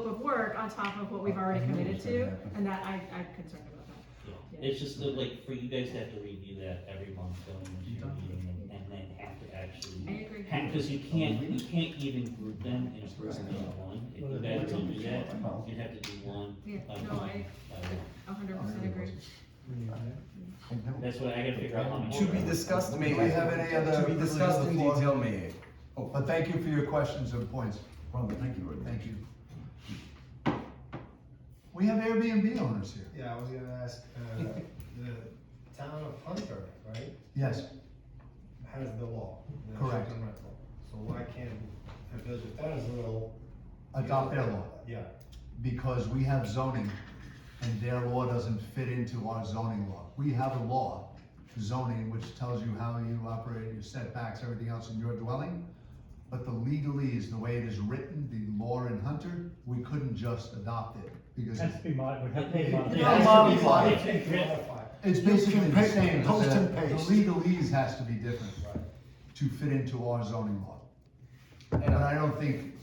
of work on top of what we've already I knew it committed was gonna to, happen. and that I, I'm concerned about that. Yeah, it's just that, like, for you guys to have to review that every month going into your meeting and, and then have to actually. I agree. Because you can't, you can't even group them in a person in one, if you guys don't do that, you'd have to do one. Uh, Yeah, by no, I one, by one. a hundred percent agree. I know. That's what I gotta figure out how much. To be discussed, maybe. Do we have any other- To be discussed in people on the detail, floor? maybe. Oh, but thank you for your questions and points. Robert, thank you, thank you. We have Airbnb owners here. Yeah, I was gonna ask, uh, the town of Hunter, right, Yes, has the law. the Correct. short-term rental. So why can't a village of Tazewell? adopt their law, Yeah, because we have zoning, and their law doesn't fit into our zoning law. We have a law, zoning, which tells you how you operate, your setbacks, everything else in your dwelling. But the legalese, the way it is written, the law in Hunter, we couldn't just adopt it, because Has to be modified, would have to be They- modified. they- Yeah, they- modify they- it. they- they- modify, It's basically the Paste same, and post the- and the paste. legalese has to be different right. to fit into our zoning law. And I don't think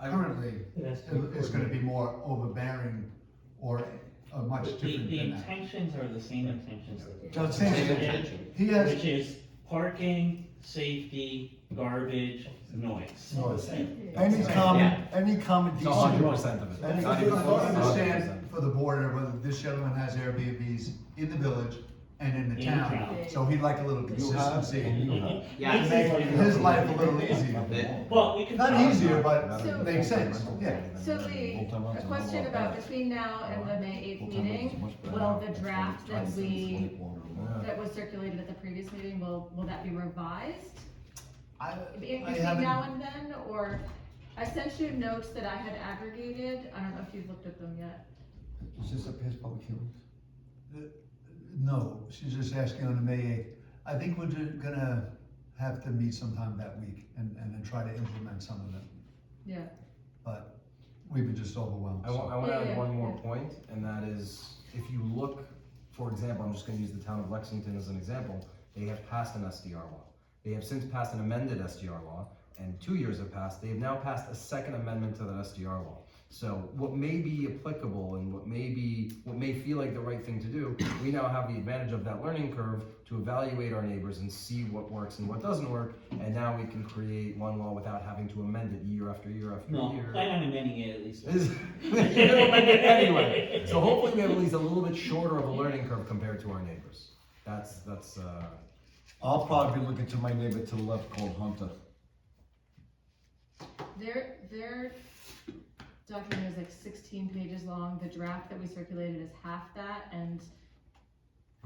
currently It has to be it- it's gonna be more overbearing or uh, much The, different the than that. intentions are the same intentions that. So it's saying Yeah. He Which has, is parking, safety, garbage, noise. All the same. Any Yeah. common, any common It's a hundred decent- percent of I understand for the border whether this gentleman has Airbnbs in the village and in the In town, town. so he'd like a little You have, and consistency. you have. Yeah, This Make is- his life a little easier. Well, we can. Not easier, but So- makes sense, yeah. So Lee, a question about between now and the May eighth meeting, will the draft that we, that was circulated at the previous meeting, will, will that be revised? I, in I between now haven't, and then, or I sent you notes that I had aggregated, I don't know if you've looked at them yet. Is this a past public hearing? Uh, no, she's just asking on the May eighth. I think we're ju- gonna have to meet sometime that week and, and then try to implement some of them. Yeah. But we've been just overwhelmed, I want, I so. want to Yeah, yeah, add one more yeah. point, and that is, if you look, for example, I'm just going to use the town of Lexington as an example. They have passed an SDR law. They have since passed an amended SDR law, and two years have passed. They have now passed a second amendment to that SDR law. So what may be applicable and what may be what may feel like the right thing to do, we now have the advantage of that learning curve to evaluate our neighbors and see what works and what doesn't work. And now we can create one law without having to amend it year after year after No, year. plan on amending it at least. once. Is- You're gonna amend it anyway. So hopefully we have at least a little bit shorter of a learning curve compared to our neighbors. That's, that's, uh, I'll probably be looking to my neighbor to the left called Hunter. Their, their document is like sixteen pages long, the draft that we circulated is half that, and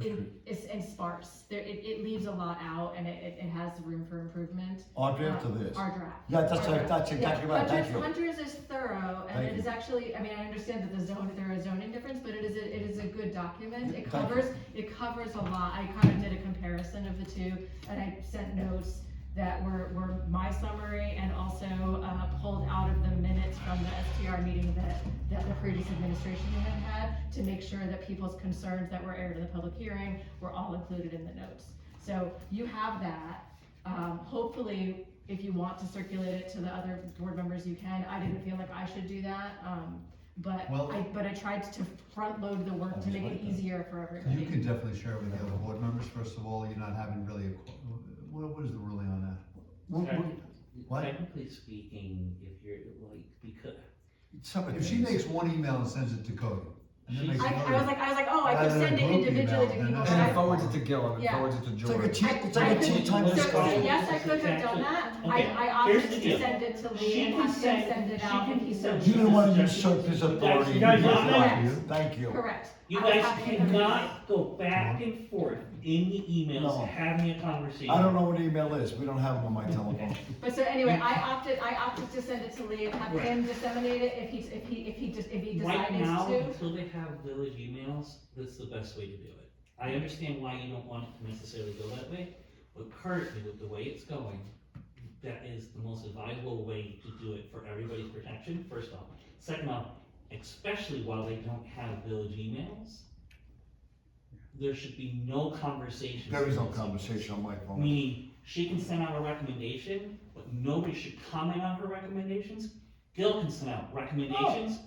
it, it's, and sparse, there, it, it leaves a lot out, and it, it- it has room for improvement. Our draft Uh, of this. Our draft. Yeah, that's Our right, draft. that's Yeah, exactly right, thank Hunter's- you. Hunter's is thorough, and Thank it you. is actually, I mean, I understand that the zone, there is zoning difference, but it is, a- it is a good document, Thank it you. covers, it covers a lot, I kind of did a comparison of the two, and I sent notes that were, were my summary, and also, uh, pulled out of the minutes from the STR meeting that, that the previous administration had had, to make sure that people's concerns that were aired in the public hearing were all included in the notes. So you have that, um, hopefully, if you want to circulate it to the other board members, you can. I didn't feel like I should do that, um, but Well- uh, I, but I tried to front load the work to Always make it like that. easier for You everybody. can definitely share it with the other board members, first of all, you're not having really, a qu- what, what is the ruling on that? Well, well, Technically- What? Technically speaking, if you're like, because, separate If she things. makes one email and sends it to Cody, and then She's- makes I, I was another, like, I was like, oh, I Rather could than send it group individually to email, people, then but and I. it forwards it to Gil and it Yeah. forwards it to It's like a George. cheat, it's like a cheat time So, so discussion. yes, I could have done that. I, I opted Here's the to deal. send it to She Lee and can have him send- send it she out can and he send- said. You didn't wanna usurp his authority. You guys- you guys- Thank you. Thank you. Correct. you I was guys happy to- cannot go back and forth in the No. emails, having a conversation. I don't know what email is, we don't have them on my telephone. But so anyway, I opted, I opted to send it to Lee and have Right. him disseminate it if he, if he, if he just, if he Right decides now, to. until they have village emails, that's the best way to do it. I understand why you don't want it to necessarily go that way, but currently with the way it's going, that is the most advisable way to do it for everybody's protection, first off. Second off, especially while they don't have village emails, there should be no conversation. There is no conversation on my phone. Meaning, she can send out a recommendation, but nobody should comment on her recommendations. Gil can send out recommendations,